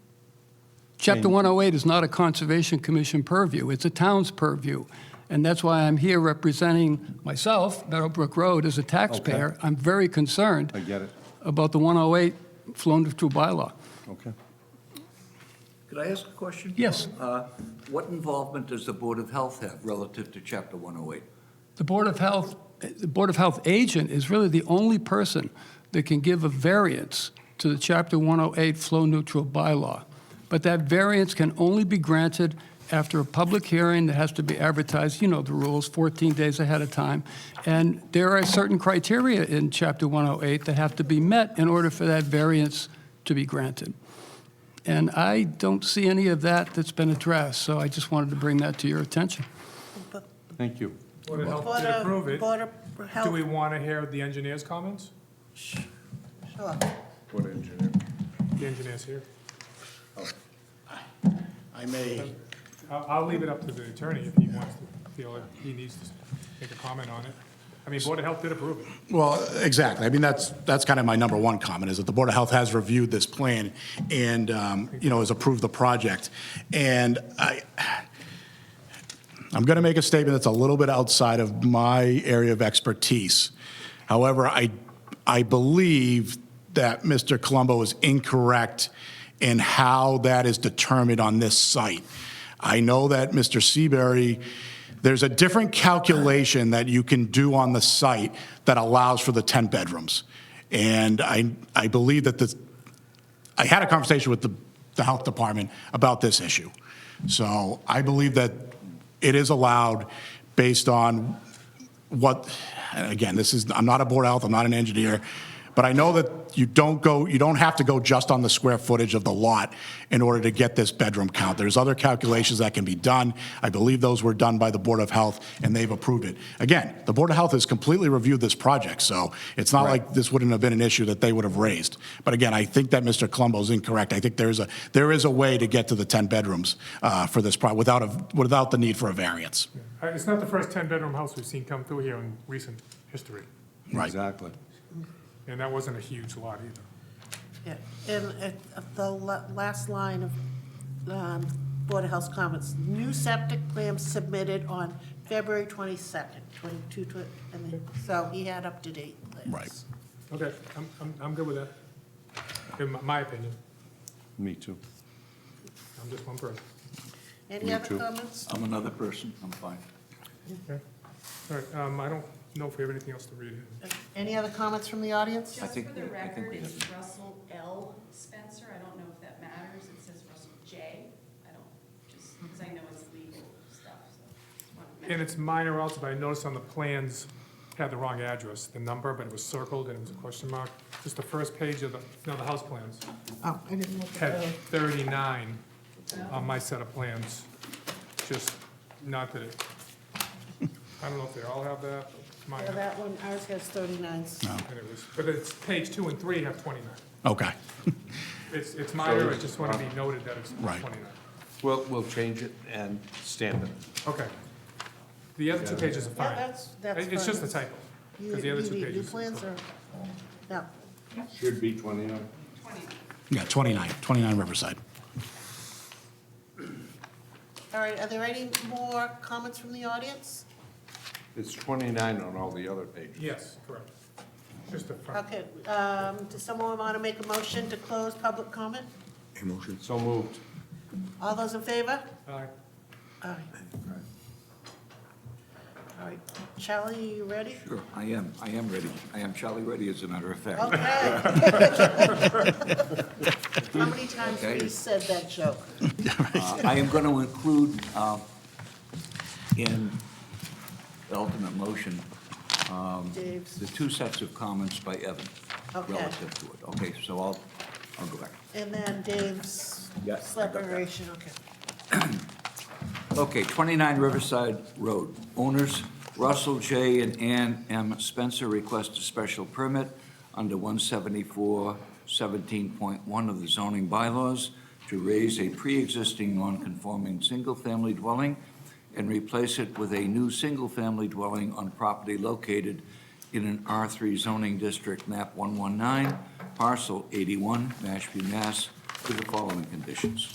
Chapter 108 is not a Conservation Commission purview, it's a town's purview. And that's why I'm here representing myself, Meadowbrook Road, as a taxpayer. I'm very concerned I get it. about the 108 flown through bylaw. Okay. Could I ask a question? Yes. Uh, What involvement does the Board of Health have relative to Chapter 108? The Board of Health, the Board of Health agent is really the only person that can give a variance to the Chapter 108 flow neutral bylaw. But that variance can only be granted after a public hearing that has to be advertised, you know the rules, 14 days ahead of time. And there are certain criteria in Chapter 108 that have to be met in order for that variance to be granted. And I don't see any of that that's been addressed, so I just wanted to bring that to your attention. Thank you. Board of Health Board did approve of, it. Board of Health. Do we want to hear the engineer's comments? Sure. What engineer? The engineer's here. I may, I'll, I'll leave it up to the attorney if he wants to, feel like he needs to make a comment on it. I mean, Board of Health did approve it. well, exactly. I mean, that's, that's kind of my number one comment, is that the Board of Health has reviewed this plan and, um, you know, has approved the project. And I, I'm going to make a statement that's a little bit outside of my area of expertise. However, I, I believe that Mr. Colombo is incorrect in how that is determined on this site. I know that Mr. Seabury, there's a different calculation that you can do on the site that allows for the 10 bedrooms. And I, I believe that the, I had a conversation with the, the health department about this issue. So I believe that it is allowed based on what, and again, this is, I'm not a board health, I'm not an engineer, but I know that you don't go, you don't have to go just on the square footage of the lot in order to get this bedroom count. There's other calculations that can be done. I believe those were done by the Board of Health, and they've approved it. Again, the Board of Health has completely reviewed this project, so it's not like this wouldn't have been an issue that they would have raised. But again, I think that Mr. Colombo's incorrect. I think there is a, there is a way to get to the 10 bedrooms uh, for this project without, a- without the need for a variance. Uh, It's not the first 10-bedroom house we've seen come through here in recent history, Right. Exactly. and that wasn't a huge lot either. Yeah. And at- at the la- last line of um, Board of Health's comments, new septic plan submitted on February 22nd, 22, tw- and then- so he had up-to-date plans. Right. Okay, I'm, I'm, I'm good with that, in my- my opinion. Me too. I'm just one person. Any Me other too. comments? I'm another person, I'm fine. Okay. All right, um, I don't know if we have anything else to read. Any other comments from the audience? I Just think for the we- I think record, we it's have- Russell L. Spencer, I don't know if that matters, it says Russell J. I don't, just, because I know it's legal stuff, so. just wanted to And mention. it's minor also, but I noticed on the plans had the wrong address, the number, but it was circled and it was a question mark. Just the first page of the, no, the house plans Oh, I didn't look at had those. 39 on my set of plans. Just not that it, I don't know if they all have that, but mine, Yeah, that one, ours has 39. and it was, but it's page two and three have 29. Okay. It's, it's minor, I just want to be noted that it's Right. 29. We'll, we'll change it and stamp it. Okay. The other two pages are Yeah, fine. that's, that's It's just a fine. typo, You because the other you two need new pages. plans or, no. Should be 29. Yeah, 29, 29 Riverside. All right, are there any more comments from the audience? It's 29 on all the other pages. Yes, correct. Just the front. Okay, um, does someone want to make a motion to close public comment? So moved. All those in favor? Aye. All right. All right, Charlie, are you ready? Sure, I am, I am ready. I am Charlie ready, as a matter of fact. Okay. How many times have Okay. you said that joke? Uh, I am going to include um, in the ultimate motion, Um, Dave's, the two sets of comments by Evan Okay. relative to it. Okay, so I'll, I'll go back. and then Dave's Yes, I got that. separation, okay. Okay, 29 Riverside Road. Owners Russell J. and Ann M. Spencer request a special permit under 174-17.1 of the zoning bylaws to raise a pre-existing non-conforming single-family dwelling and replace it with a new single-family dwelling on property located in an R3 zoning district, map 119, parcel 81, Mashpee, Mass, with the following conditions.